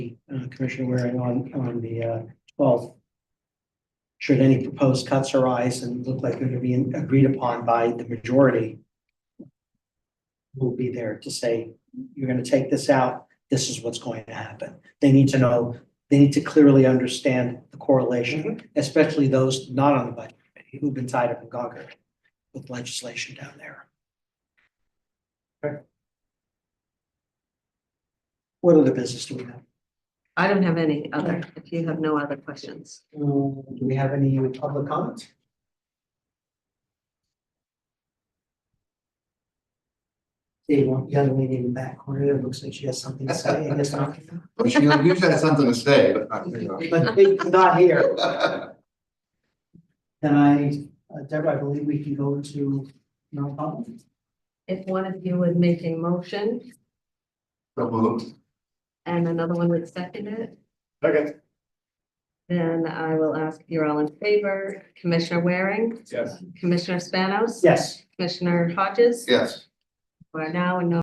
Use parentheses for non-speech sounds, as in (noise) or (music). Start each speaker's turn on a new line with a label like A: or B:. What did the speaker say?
A: uh, Commissioner Waring on, on the uh, twelfth. Should any proposed cuts arise and look like they're gonna be agreed upon by the majority. Will be there to say, you're gonna take this out, this is what's going to happen. They need to know, they need to clearly understand the correlation, especially those not on the budget committee who've been tied up in Gawker with legislation down there. What other business do we have?
B: I don't have any other, if you have no other questions.
A: Um, Do we have any public comments? See, one young lady in the back corner, it looks like she has something to say, I guess not.
C: Well, She usually has something to say, but not,
A: (laughs)
C: you know.
A: But they- not here. Then I, uh, Deborah, I believe we can go into non-public.
B: If one of you would make a motion
C: So moved.
B: and another one would second it,
D: Okay.
B: then I will ask if you're all in favor. Commissioner Waring,
D: Yes.
B: Commissioner Spanos.
A: Yes.
B: Commissioner Hodges.
C: Yes.
B: We're now in no